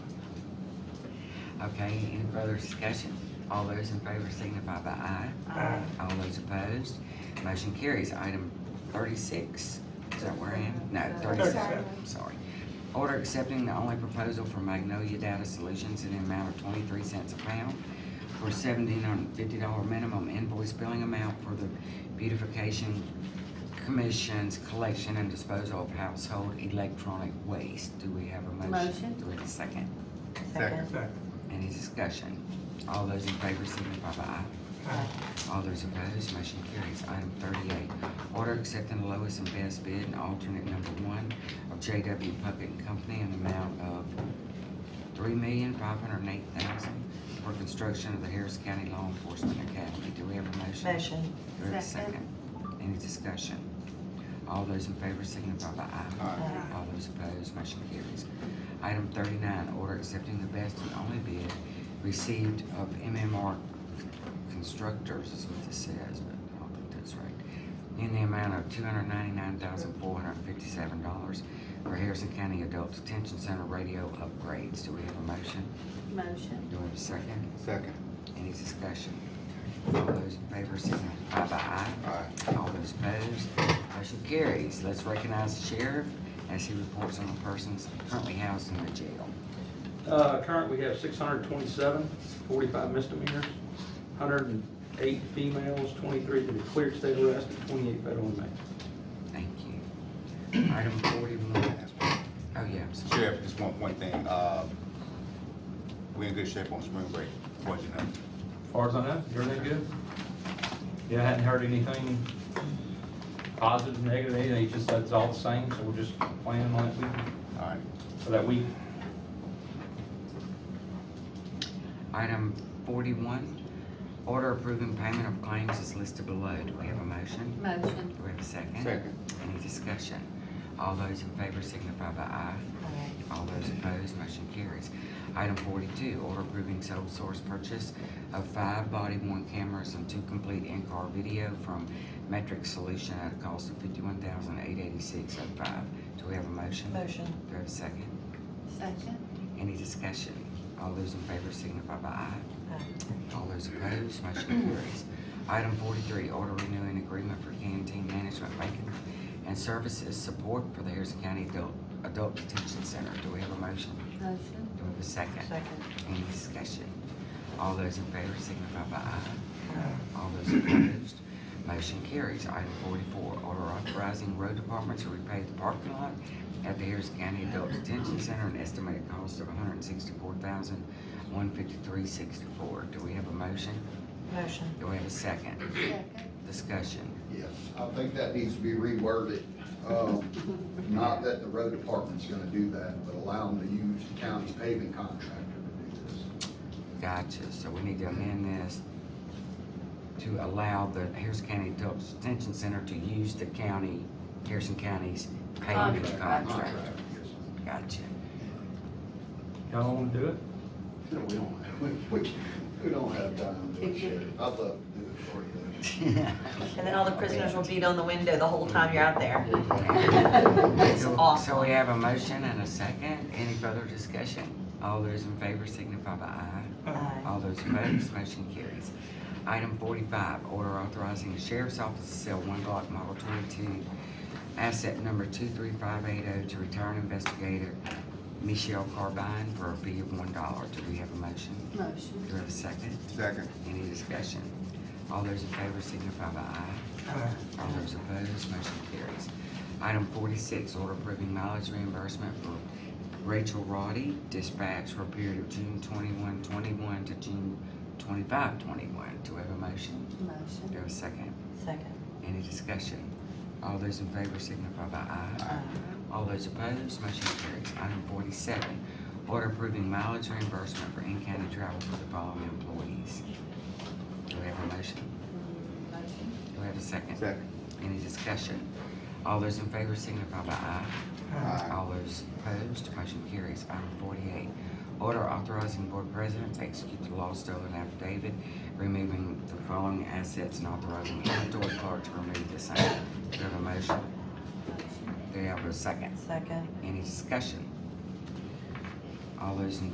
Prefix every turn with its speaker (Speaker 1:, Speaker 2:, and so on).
Speaker 1: Okay, any further discussion? All those in favor signify by aye.
Speaker 2: Aye.
Speaker 1: All those opposed, motion carries. Item thirty-six, is that where I am? No, thirty-seven,
Speaker 2: Thirty-seven.
Speaker 1: sorry. Order accepting the only proposal for Magnolia Data Solutions in an amount of twenty-three cents a pound for seventeen hundred and fifty dollar minimum invoice billing amount for the beautification commission's collection and disposal of household electronic waste. Do we have a motion?
Speaker 3: Motion.
Speaker 1: Do we have a second?
Speaker 3: Second.
Speaker 2: Second.
Speaker 1: Any discussion? All those in favor signify by aye.
Speaker 2: Aye.
Speaker 1: All those opposed, motion carries. Item thirty-eight, order accepting the lowest and best bid and alternate number one of JW Puckett and Company in the amount of three million, five hundred and eight thousand for construction of the Harris County Law Enforcement Academy. Do we have a motion?
Speaker 3: Motion.
Speaker 1: Do we have a
Speaker 3: Second.
Speaker 1: second? Any discussion? All those in favor signify by aye.
Speaker 3: Aye.
Speaker 1: All those opposed, motion carries. Item thirty-nine, order accepting the best and only bid received of MMR Constructors, is what this says, but I don't think that's right, in the amount of two hundred ninety-nine thousand four hundred fifty-seven dollars for Harrison County Adult Detention Center radio upgrades. Do we have a motion?
Speaker 3: Motion.
Speaker 1: Do we have a second?
Speaker 4: Second.
Speaker 1: Any discussion? All those in favor signify by aye.
Speaker 4: Aye.
Speaker 1: All those opposed, motion carries. Let's recognize the sheriff as he reports on the persons currently housed in the jail.
Speaker 5: Uh, current, we have 627, 45 misdemeanors, 108 females, 23 that are cleared state arrest, and 28 federal inmates.
Speaker 1: Thank you. Item forty-one, oh yeah, I'm sorry.
Speaker 4: Sheriff, just one, one thing, uh, we in good shape on spring break, what you know?
Speaker 5: As far as I know, everything good? Yeah, I hadn't heard anything positive, negative, anything, it's just that's all the same, so we're just planning on that week,
Speaker 4: All right,
Speaker 5: for that week.
Speaker 1: Item forty-one, order approving payment of claims is listed below. Do we have a motion?
Speaker 3: Motion.
Speaker 1: Do we have a second?
Speaker 4: Second.
Speaker 1: Any discussion? All those in favor signify by aye. All those opposed, motion carries. Item forty-two, order approving sole source purchase of five body-worn cameras and two complete in-car video from Metric Solution at a cost of fifty-one thousand eight eighty-six oh five. Do we have a motion?
Speaker 3: Motion.
Speaker 1: Do we have a second?
Speaker 3: Second.
Speaker 1: Any discussion? All those in favor signify by aye.
Speaker 3: Aye.
Speaker 1: All those opposed, motion carries. Item forty-three, order renewing agreement for canteen management banking and services support for the Harrison County Adult, Adult Detention Center. Do we have a motion?
Speaker 3: Motion.
Speaker 1: Do we have a second?
Speaker 3: Second.
Speaker 1: Any discussion? All those in favor signify by aye. All those opposed, motion carries. Item forty-four, order authorizing road department to repay the parking lot at the Harris County Adult Detention Center, an estimated cost of 164153 hundred and sixty-four thousand, one fifty-three sixty-four. Do we have a motion?
Speaker 3: Motion.
Speaker 1: Do we have a second?
Speaker 3: Second.
Speaker 1: Discussion.
Speaker 6: Yes, I think that needs to be reworded. Um, Not that the road department's gonna do that, but allow them to use the county's paving contractor to do this.
Speaker 1: Gotcha, so we need to amend this to allow the Harrison County Adult Detention Center to use the county, Harrison County's payment
Speaker 3: Contract.
Speaker 1: contract.
Speaker 6: yes.
Speaker 1: Gotcha.
Speaker 5: Y'all want to do it?
Speaker 6: No, we don't, we, we- we don't have time to do it, Sheriff. I'd love to do it for you.
Speaker 7: And then all the prisoners will beat on the window the whole time you're out there. It's
Speaker 1: So-
Speaker 7: awesome.
Speaker 1: So we have a motion and a second. Any further discussion? All those in favor signify by aye.
Speaker 3: Aye.
Speaker 1: All those opposed, motion carries. Item forty-five, order authorizing the sheriff's office to sell one Glock Model twenty-two, asset number two-three-five-eight-oh oh, to retired investigator Michelle Carbine for a fee of one dollar. Do we have a motion?
Speaker 3: Motion.
Speaker 1: Do we have a second?
Speaker 4: second,
Speaker 1: Any discussion? All those in favor signify by aye. All those opposed, motion carries. Item forty-six, order approving mileage reimbursement for Rachel Roddy dispatch for a period of June twenty-one, twenty-one to June twenty-five, twenty-one. Do we have a motion? Do we
Speaker 3: Motion.
Speaker 1: have a second?
Speaker 3: Second.
Speaker 1: Any discussion? All those in favor signify by aye. All those opposed, motion carries. Item forty-seven, order approving mileage reimbursement for in-county travel for the following employees. Do we have a motion?
Speaker 3: Motion.
Speaker 1: Do we have a second?
Speaker 4: second.
Speaker 1: Any discussion? All those in favor signify by aye.
Speaker 4: Aye.
Speaker 1: All those opposed, motion carries. Item forty-eight, order authorizing board president to execute the law stolen affidavit, removing the following assets and authorizing inventory clerk to remove the same. Do we have a motion?
Speaker 3: Motion.
Speaker 1: Do we have a second?
Speaker 3: Second.
Speaker 1: Any discussion? All those in